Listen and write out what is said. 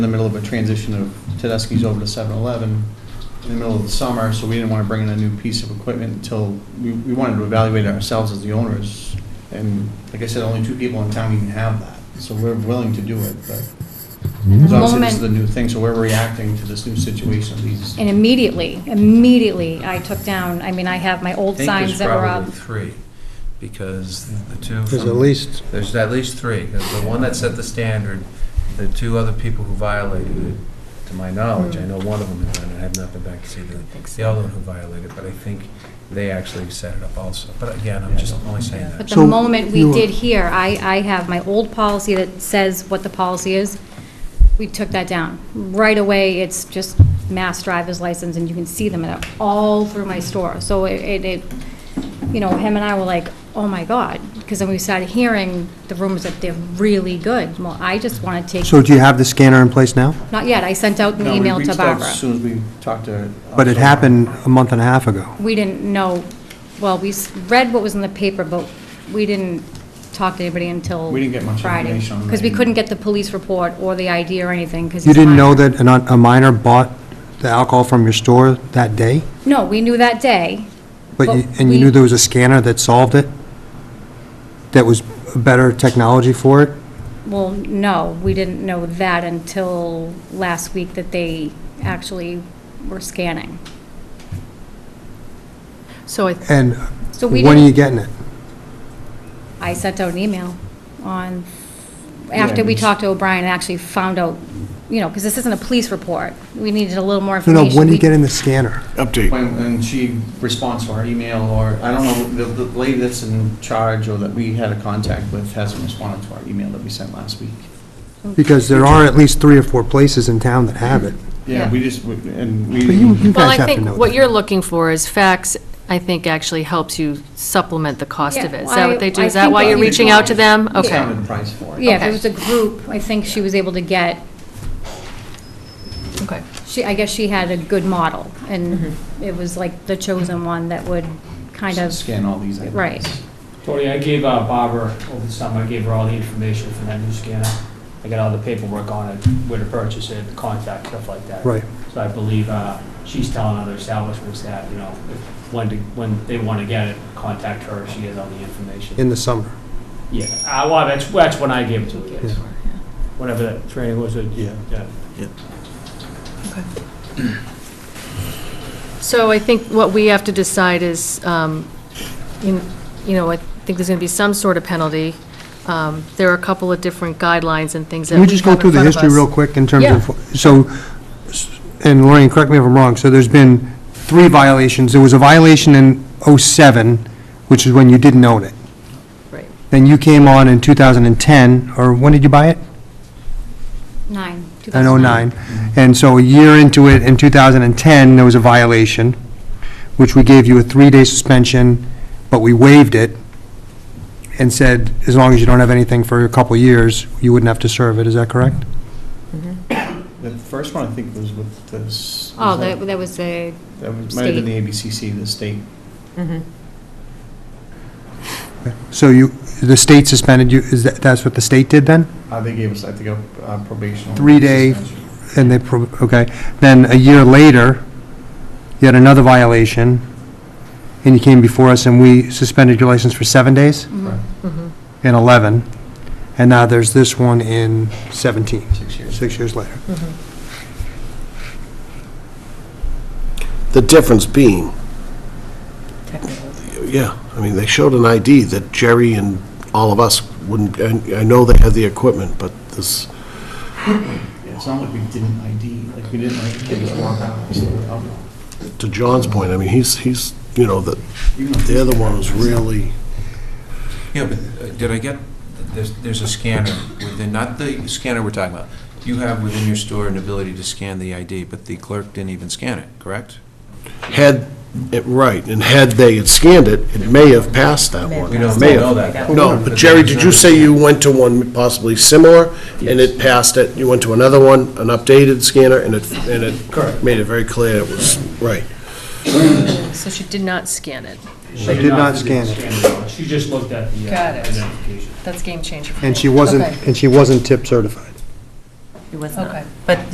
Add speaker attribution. Speaker 1: in the middle of a transition of Tedeschi's over to 7-Eleven in the middle of the summer, so we didn't want to bring in a new piece of equipment until, we, we wanted to evaluate ourselves as the owners. And like I said, only two people in town even have that, so we're willing to do it, but
Speaker 2: At
Speaker 3: Mm-hmm.
Speaker 2: the
Speaker 1: obviously this is the
Speaker 2: moment,
Speaker 1: new thing, so we're reacting to this new situation, these.
Speaker 2: and immediately, immediately, I took down, I mean, I have my old
Speaker 4: I think
Speaker 2: signs
Speaker 4: there's
Speaker 2: that were up.
Speaker 4: probably three, because the two.
Speaker 3: There's
Speaker 4: from-
Speaker 3: at least,
Speaker 4: There's at least three. The the one that set the standard, the two other people who violated it, to my knowledge, I know one of them, and I have not been back to see the, the other one who violated, but I think they actually set it up also. But again, I'm just only saying
Speaker 2: But
Speaker 4: that.
Speaker 2: the
Speaker 3: So
Speaker 2: moment we
Speaker 3: you-
Speaker 2: did here, I, I have my old policy that says what the policy is. We took that down. Right away, it's just mass driver's license, and you can see them at- all through my store. So it- it, it, you know, him and I were like, oh my God, because then we started hearing the rumors that they're really good. Well, I just want to
Speaker 3: so
Speaker 2: take,
Speaker 3: do you have the scanner in place now?
Speaker 2: not yet, I sent out an
Speaker 1: No, we
Speaker 2: email to
Speaker 1: reached out
Speaker 2: Barbara.
Speaker 1: As soon as we talked to. uh,
Speaker 3: But it happened a month and a half ago.
Speaker 2: We didn't know, well, we s- read what was in the paper, but we didn't talk to anybody until
Speaker 1: We didn't get much
Speaker 2: Friday,
Speaker 1: information on
Speaker 2: because we
Speaker 1: that.
Speaker 2: couldn't get the police report or the ID or anything, because.
Speaker 3: You didn't know that an- a minor bought the alcohol from your store that day?
Speaker 2: No, we knew that day.
Speaker 3: But, you-
Speaker 2: But
Speaker 3: and you
Speaker 2: we-
Speaker 3: knew there was a scanner that solved it? That was better technology for it?
Speaker 2: Well, no, we didn't know that until last week that they actually were scanning.
Speaker 5: So I,
Speaker 3: And
Speaker 2: So we
Speaker 3: when are you
Speaker 2: didn't,
Speaker 3: getting it?
Speaker 2: I sent out an email on,
Speaker 1: Yeah,
Speaker 2: after we
Speaker 1: it's-
Speaker 2: talked to O'Brien, and actually found out, you know, because this isn't a police report. We needed a little more
Speaker 3: No,
Speaker 2: information.
Speaker 3: no, when are
Speaker 2: We-
Speaker 3: you getting the scanner?
Speaker 6: Update.
Speaker 1: When, and she responds to our email, or, I don't know, the, the lady that's in charge or that we had a contact with hasn't responded to our email that we sent last week.
Speaker 3: Because there are at least three or four places in town that have it.
Speaker 1: Yeah,
Speaker 2: Yeah.
Speaker 1: we just, we- and
Speaker 3: But you,
Speaker 1: we,
Speaker 3: you
Speaker 5: well,
Speaker 3: guys
Speaker 5: I
Speaker 3: have to
Speaker 5: think
Speaker 3: know
Speaker 5: what
Speaker 3: that.
Speaker 5: you're looking for is facts, I think actually helps you supplement the cost of
Speaker 2: Yeah,
Speaker 5: it. Is that what they do?
Speaker 2: I-
Speaker 5: Is
Speaker 2: I
Speaker 5: that why
Speaker 2: think
Speaker 5: you're
Speaker 2: we-
Speaker 5: reaching out to them? Okay.
Speaker 1: discounted price for it.
Speaker 2: Yeah, if it
Speaker 5: Okay.
Speaker 2: was a group, I think she was able to get,
Speaker 5: Okay. Mm-hmm.
Speaker 2: she, I guess she had a good model, and it was like the chosen one that would kind of,
Speaker 1: Scan all these items.
Speaker 2: Right.
Speaker 7: Tony, I gave uh, Barbara over the summer, I gave her all the information for that new scanner. I got all the paperwork on it, where to purchase it, the contact, stuff like that.
Speaker 3: Right.
Speaker 7: So I believe uh, she's telling other establishments that, you know, if- when, to- when they want to get it, contact her, she has all the information.
Speaker 3: In the summer.
Speaker 7: Yeah, uh, well, that's, that's when I gave it to the kids,
Speaker 3: Yeah.
Speaker 7: whenever that training was, uh,
Speaker 1: Yeah.
Speaker 7: yeah.
Speaker 5: So I think what we have to decide is, um, you you know, I think there's going to be some sort of penalty. Um, There are a couple of different guidelines and things that
Speaker 3: Can
Speaker 5: we
Speaker 3: we
Speaker 5: have
Speaker 3: just go through
Speaker 5: in
Speaker 3: the
Speaker 5: front of
Speaker 3: history
Speaker 5: us.
Speaker 3: real quick in terms of, so, s- and Lorraine, correct me if I'm wrong, so there's been three violations. There was a violation in '07, which is when you didn't own it.
Speaker 5: Right.
Speaker 3: Then you came on in 2010, or when did you buy it?
Speaker 2: nine.
Speaker 3: In
Speaker 2: 2009.
Speaker 3: '09. And so a year into it, in 2010, there was a violation, which we gave you a three-day suspension, but we waived it and said, as long as you don't have anything for a couple of years, you wouldn't have to serve it. Is that correct?
Speaker 1: The first one, I think, was with this.
Speaker 2: Oh, that, that was the,
Speaker 1: That was- might have been
Speaker 2: state.
Speaker 1: the ABCC, the state.
Speaker 3: So you, the state suspended you, is that, that's what the state did then?
Speaker 1: Uh, they gave us, I think, a uh, probational.
Speaker 3: Three-day-
Speaker 1: suspension.
Speaker 3: And they, pro- okay. Then a year later, you had another violation, and you came before us, and we suspended your license for seven days
Speaker 2: mm-hmm.
Speaker 1: Correct.
Speaker 5: Mm-hmm.
Speaker 3: in 11, and now there's this one in 17,
Speaker 1: Six years.
Speaker 3: six years later.
Speaker 6: The difference being. Yeah, I mean, they showed an ID that Jerry and all of us wouldn't, and I know they had the equipment, but this,
Speaker 1: Yeah, It's not like we didn't ID, like we didn't like kids walk out and say, oh, no.
Speaker 6: to John's point, I mean, he's, he's, you know, the,
Speaker 1: Even if-
Speaker 6: the other one was really,
Speaker 4: Yeah, but uh, did I get, there's, there's a scanner within, not the scanner we're talking about. You have within your store an ability to scan the ID, but the clerk didn't even scan it, correct?
Speaker 6: had it right, and had they had scanned it, it may have passed that one.
Speaker 4: We don't
Speaker 6: May have.
Speaker 4: know that.
Speaker 6: No, but Jerry, did you say you went to one possibly similar, and it passed it? You went to another one, an updated scanner, and it, and it made it very clear it was, right.
Speaker 5: So she did not scan it.
Speaker 7: She
Speaker 3: did not scan it.
Speaker 7: all. She just looked at the uh,
Speaker 5: Got it.
Speaker 7: identification.
Speaker 5: That's game changer. for
Speaker 3: And
Speaker 5: me.
Speaker 3: she wasn't,
Speaker 5: Okay.
Speaker 3: and she wasn't tip certified.
Speaker 5: It was not.
Speaker 8: Okay.
Speaker 5: But